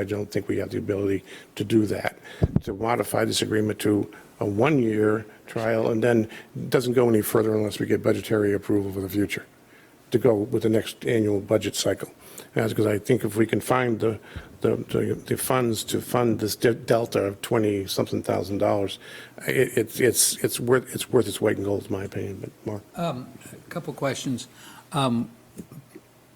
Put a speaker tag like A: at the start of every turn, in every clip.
A: I don't think we have the ability to do that. To modify this agreement to a one-year trial and then it doesn't go any further unless we get budgetary approval for the future, to go with the next annual budget cycle. And That's because I think if we can find the, the, the- the funds to fund this de- delta of 20-something thousand dollars, it, it's, it's, it's worth, it's worth its weight in gold, in my opinion, but Mark.
B: Couple questions. Um,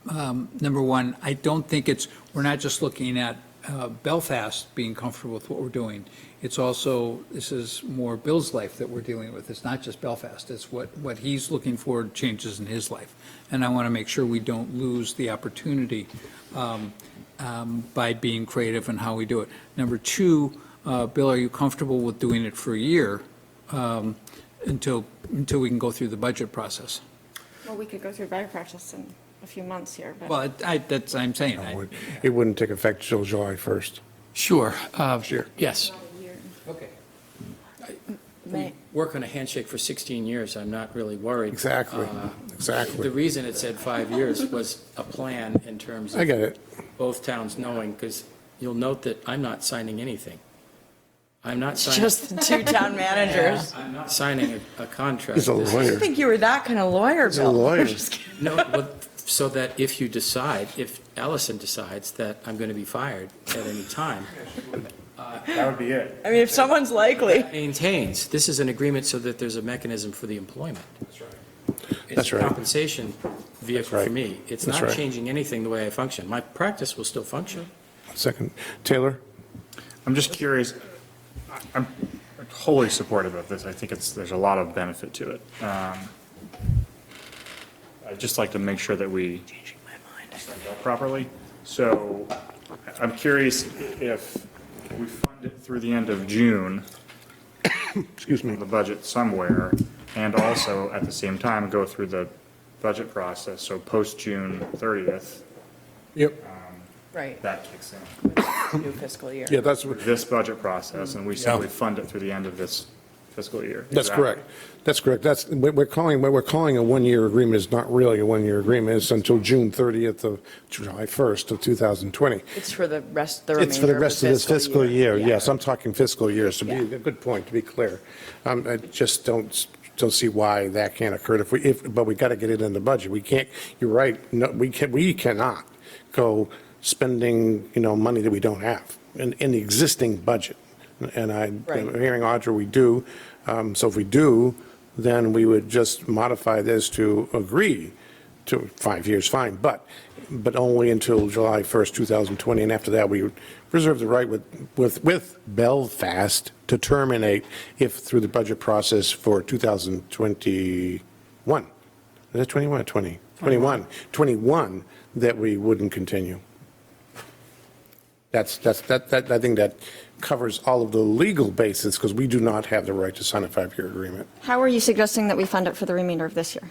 B: um, Number one, I don't think it's, we're not just looking at uh, Belfast being comfortable with what we're doing. It's also, this is more Bill's life that we're dealing with. It's not just Belfast. It's what, what he's looking for changes in his life. And I want to make sure we don't lose the opportunity um, um, by being creative in how we do it. Number two, uh, Bill, are you comfortable with doing it for a year um, until, until we can go through the budget process?
C: Well, we could go through budget process in a few months here, but.
B: Well, I, that's, I'm saying, I-
A: It wouldn't take effect till July 1st.
D: Sure. uh,
A: Sure.
D: Yes.
C: a year.
D: Okay.
C: May-
D: Work on a handshake for 16 years, I'm not really worried.
A: Exactly,
D: Uh, The
A: exactly.
D: reason it said five years was a plan in terms
A: I
D: of
A: get it.
D: both towns knowing, because you'll note that I'm not signing anything. I'm not signing,
E: Just the two town managers.
D: I'm not signing a- a contract.
A: He's a
D: This is-
E: I
A: lawyer.
E: didn't think you were that kind of lawyer,
A: He's a
E: Bill.
A: lawyer.
D: No, well, so that if you decide, if Allison decides that I'm going to be fired at any time,
F: That would be it.
E: I mean, if someone's likely.
D: maintains, this is an agreement so that there's a mechanism for the employment.
A: That's right.
D: It's a compensation vehicle
A: That's
D: for
A: right.
D: me. It's
A: That's
D: not
A: right.
D: changing anything the way I function. My practice will still function.
A: Second, Taylor?
F: I'm just curious, I- I'm wholly supportive of this. I think it's, there's a lot of benefit to it. Um, I'd just like to make sure that we set it up properly. So I- I'm curious if we fund it through the end of June,
A: Excuse me.
F: the budget somewhere, and also at the same time go through the budget process, so post-June 30th,
A: Yep.
E: Right.
F: that kicks in.
E: New fiscal year.
A: Yeah, that's,
F: this budget process, and we simply fund it through the end of this fiscal year.
A: that's
F: Exactly.
A: correct. That's correct. That's, what we're calling, what we're calling a one-year agreement is not really a one-year agreement. It's until June 30th of July 1st of 2020.
E: It's for the rest, the remainder
A: It's for the rest of this fiscal year, yes. I'm talking fiscal year, so be,
E: Yeah.
A: a good point, to be clear. Um, I just don't, don't see why that can't occur if we, if, but we got to get it in the budget. We can't, you're right, no, we can, we cannot go spending, you know, money that we don't have in, in the existing budget. And I, I'm
E: Right.
A: hearing Audra, we do. Um, so if we do, then we would just modify this to agree to five years, fine, but, but only until July 1st, 2020, and after that, we reserve the right with, with, with Belfast to terminate if through the budget process for 2021. Is that 21 or 20? 21, 21, that we wouldn't continue. That's, that's, that, that, I think that covers all of the legal basis, because we do not have the right to sign a five-year agreement.
C: How are you suggesting that we fund it for the remainder of this year?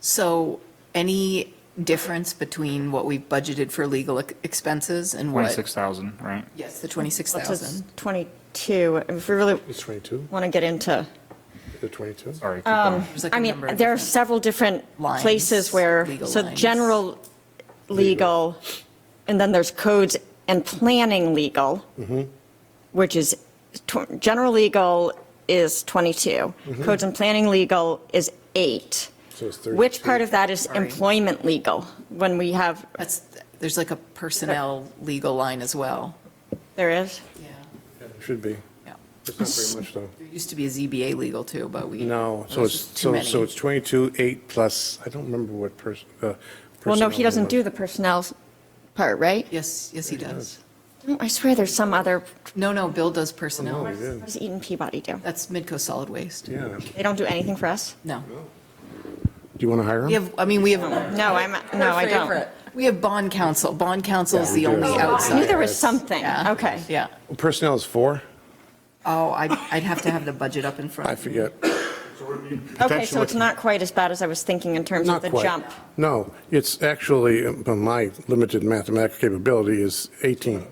G: So any difference between what we budgeted for legal ex- expenses and what?
F: 26,000, right?
G: Yes, the
C: Which is
G: 26,000.
C: 22, if we really
A: It's 22,
C: want to get into,
A: the 22?
F: Sorry. keep
C: Um,
F: going.
G: There's like a
C: I mean,
G: number of
C: there are
G: different-
C: several different
G: lines,
C: places where,
G: legal
C: so
G: lines.
C: general legal, and then there's codes and planning legal, which is, tw- general legal is 22, codes and planning legal is eight.
A: So it's 32.
C: Which part of that is
G: Sorry.
C: employment legal, when we have,
G: That's, there's like a personnel legal line as well.
C: there is?
G: Yeah.
A: Should be.
G: Yeah.
A: It's not very much, though.
G: There used to be a ZBA legal too, but we.
A: No, so
G: There's
A: it's,
G: just too
A: so,
G: many.
A: so it's 22, 8 plus, I don't remember what person, uh.
C: Well, no,
A: personnel
C: he doesn't
A: was.
C: do the personnel part, right?
G: Yes, yes, he does.
C: No, I swear there's some other,
G: No, no, Bill does
A: Oh,
G: personnel.
A: he did.
C: what does Eden Peabody do?
G: That's Midco Solid Waste.
A: Yeah.
C: They don't do anything for us?
G: No.
A: Do you want to hire
G: We
A: him?
G: have, I mean, we have.
C: No, I'm, no, I don't.
G: We have bond counsel. Bond counsel is
A: Yeah, we
G: the
A: do.
G: only
A: Oh, I knew
C: I knew
G: outside.
C: there was something,
G: Yeah.
C: okay.
G: Yeah.
A: Personnel is four,
G: Oh, I'd, I'd have to have the budget up in front.
A: I
G: of me.
A: forget.
C: Okay, so it's not quite as bad as I was thinking in terms of
A: Not
C: the
A: quite.
C: jump.
A: No, it's actually, uh, my limited mathematical capability is 18.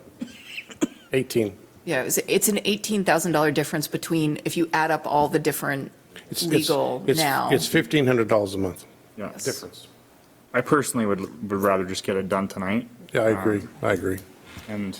A: 18.
G: Yeah, it's, it's an eighteen thousand dollar difference between, if you add up all the different
A: It's- it's-
G: legal
A: it's-
G: now.
A: It's $1,500 a month.
F: Yeah.
G: Yes.
F: Difference. I personally would, would rather just get it done tonight.
A: Yeah, I agree, I agree.
F: and